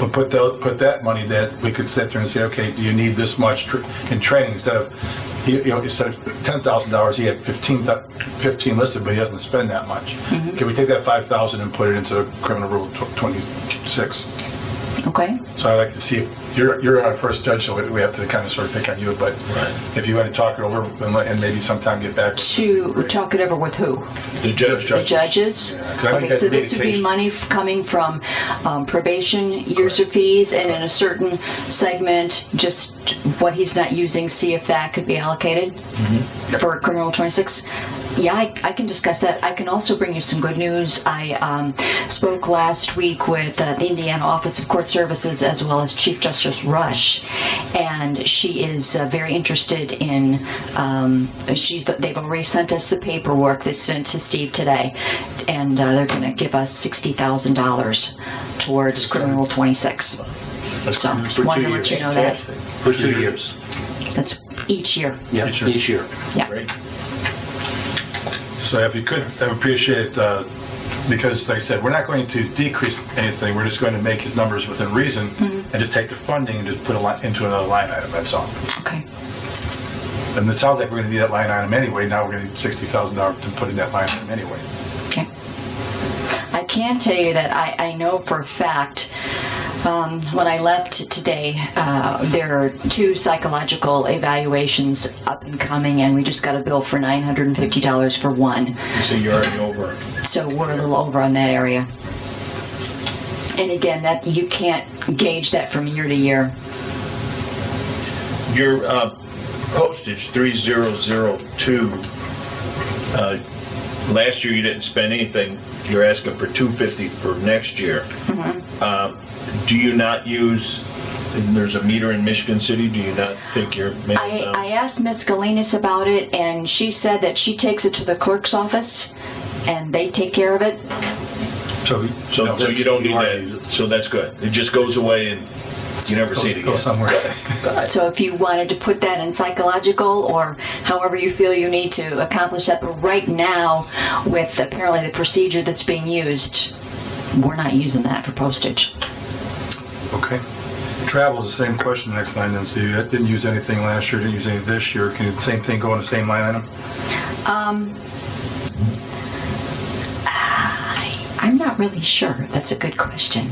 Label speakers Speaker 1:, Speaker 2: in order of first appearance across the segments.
Speaker 1: But put tho- put that money that we could sit there and say, okay, do you need this much tr- in training instead of, you you know, instead of ten thousand dollars, he had fifteen, thou- 15 listed, but he doesn't spend that much.
Speaker 2: Mm-hmm.
Speaker 1: Can we take that five thousand and put it into criminal rule tw- twenty-six?
Speaker 2: Okay,
Speaker 1: So I'd like to see, if- you're, you're our first judge, so we- we have to kind of sort of pick on you, but if you want to talk it over and let- and maybe sometime get back.
Speaker 2: to talk it over with who?
Speaker 1: The judge.
Speaker 2: The judges?
Speaker 1: Yeah, 'cause I think
Speaker 2: Okay, so
Speaker 1: that'd
Speaker 2: this would be
Speaker 1: communication.
Speaker 2: money f- coming from um, probation, user fees, and in a certain segment, just what he's not using, see if that could be allocated for criminal 26. Yeah, I, I can discuss that. I can also bring you some good news. I um, spoke last week with uh, the Indiana Office of Court Services as well as Chief Justice Rush, and she is uh, very interested in. Um, she's they've already sent us the paperwork. They sent to Steve today, and uh, they're going to give us sixty thousand dollars towards criminal twenty six. So,
Speaker 3: For
Speaker 2: wanted
Speaker 3: two
Speaker 2: to let
Speaker 3: years.
Speaker 2: you know that
Speaker 3: For two years.
Speaker 2: that's each year.
Speaker 3: Yeah,
Speaker 1: Each year.
Speaker 3: each year.
Speaker 2: Yeah.
Speaker 1: So if you could, I would appreciate, uh, because like I said, we're not going to decrease anything, we're just going to make his numbers within reason and just take the funding and just put it into another line item, that's all.
Speaker 2: Okay.
Speaker 1: And it sounds like we're going to need that line item anyway, now we're going to need $60,000 to put in that line item anyway.
Speaker 2: Okay. I can tell you that I, I know for a fact. Um, when I left today, uh, there are two psychological evaluations up and coming, and we just got a bill for nine hundred and fifty dollars for one.
Speaker 1: So you're already over.
Speaker 2: So we're a little over on that area. And again, that you can't gauge that from year to year.
Speaker 4: Your uh, postage, 3002, uh, last year you didn't spend anything. You're asking for 250 for next year.
Speaker 2: Mm-hmm.
Speaker 4: Uh, Do you not use, and there's a meter in Michigan City, do you not think you're?
Speaker 2: I, I asked Miss Galinas about it, and she said that she takes it to the clerk's office, and they take care of it.
Speaker 1: So
Speaker 4: So, so you don't need that, so that's good. It just goes away and you never see it
Speaker 1: Go
Speaker 4: again.
Speaker 1: somewhere.
Speaker 2: So if you wanted to put that in psychological or however you feel you need to accomplish that, but right now, with apparently the procedure that's being used, we're not using that for postage.
Speaker 1: Okay. Travel is the same question next line, then, so you didn't use anything last year, didn't use any this year, can the same thing go in the same line item?
Speaker 2: I'm not really sure. That's a good question.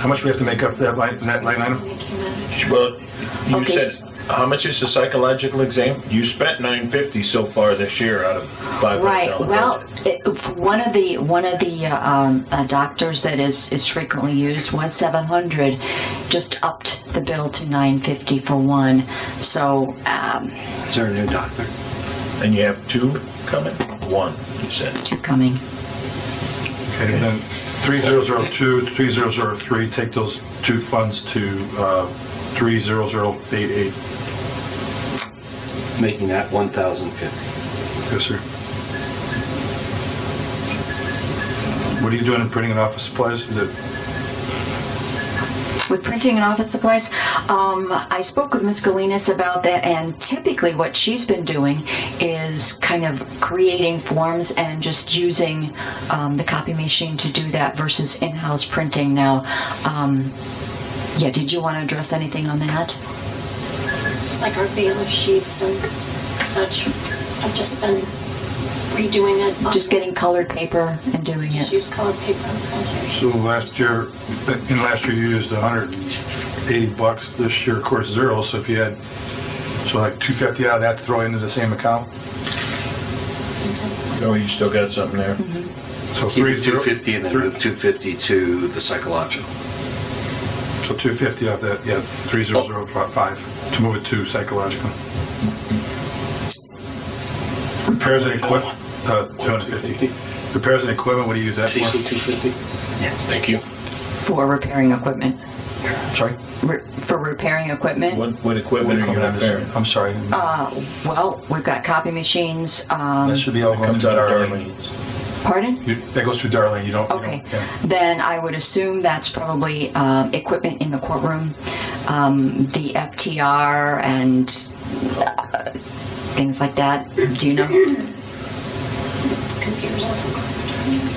Speaker 1: How much we have to make up that line, that line item?
Speaker 4: Well, you
Speaker 2: Okay,
Speaker 4: said, how much is the psychological exam? You spent nine fifty so far this year out of five hundred
Speaker 2: Right.
Speaker 4: dollars.
Speaker 2: Well, it, one of the one of the uh, um, uh, doctors that is is frequently used was 700, just upped the bill to 950 for one. So um,
Speaker 3: Is there a new doctor?
Speaker 4: And you have two coming? One, you said.
Speaker 2: two coming.
Speaker 1: Okay, then 3002, 3003, take those two funds to uh, 30088.
Speaker 3: Making that 1,050.
Speaker 1: Yes, sir. What are you doing in printing and office supplies? Is it,
Speaker 2: With printing and office supplies, um, I spoke with Ms. Galinas about that, and typically what she's been doing is kind of creating forms and just using um, the copy machine to do that versus in-house printing now. Um, yeah, did you want to address anything on that?
Speaker 5: just like our bailiff sheets and such. I've just been redoing it. on-
Speaker 2: Just getting colored paper and doing
Speaker 5: Just
Speaker 2: it.
Speaker 5: use colored paper and printing.
Speaker 1: so last year, in last year you used 180 bucks, this year, of course, zero, so if you had, so like 250 out of that to throw into the same account?
Speaker 4: Oh, you still got something there?
Speaker 1: So
Speaker 3: Keep it
Speaker 1: 30
Speaker 3: 250 and then move 250 to the psychological.
Speaker 1: So 250 off that, yeah, 3005, to move it to psychological. Repairs and equip, uh, 250. Repairs and equipment, what do you use that for?
Speaker 3: 250?
Speaker 6: Thank you.
Speaker 2: For repairing equipment.
Speaker 1: Sorry?
Speaker 2: Re- for repairing equipment?
Speaker 4: What, what equipment are you repairing?
Speaker 1: I'm sorry.
Speaker 4: Um,
Speaker 2: Well, we've got copy machines. Um,
Speaker 1: That should be all going
Speaker 4: Comes
Speaker 1: to
Speaker 4: out of
Speaker 1: Darlene.
Speaker 4: Darlene's.
Speaker 2: pardon?
Speaker 1: You- That goes through Darlene, you don't. you
Speaker 2: Okay,
Speaker 1: don't- yeah.
Speaker 2: then I would assume that's probably um, equipment in the courtroom, um, the FTR and uh, things like that. Do you know?
Speaker 5: Computers also.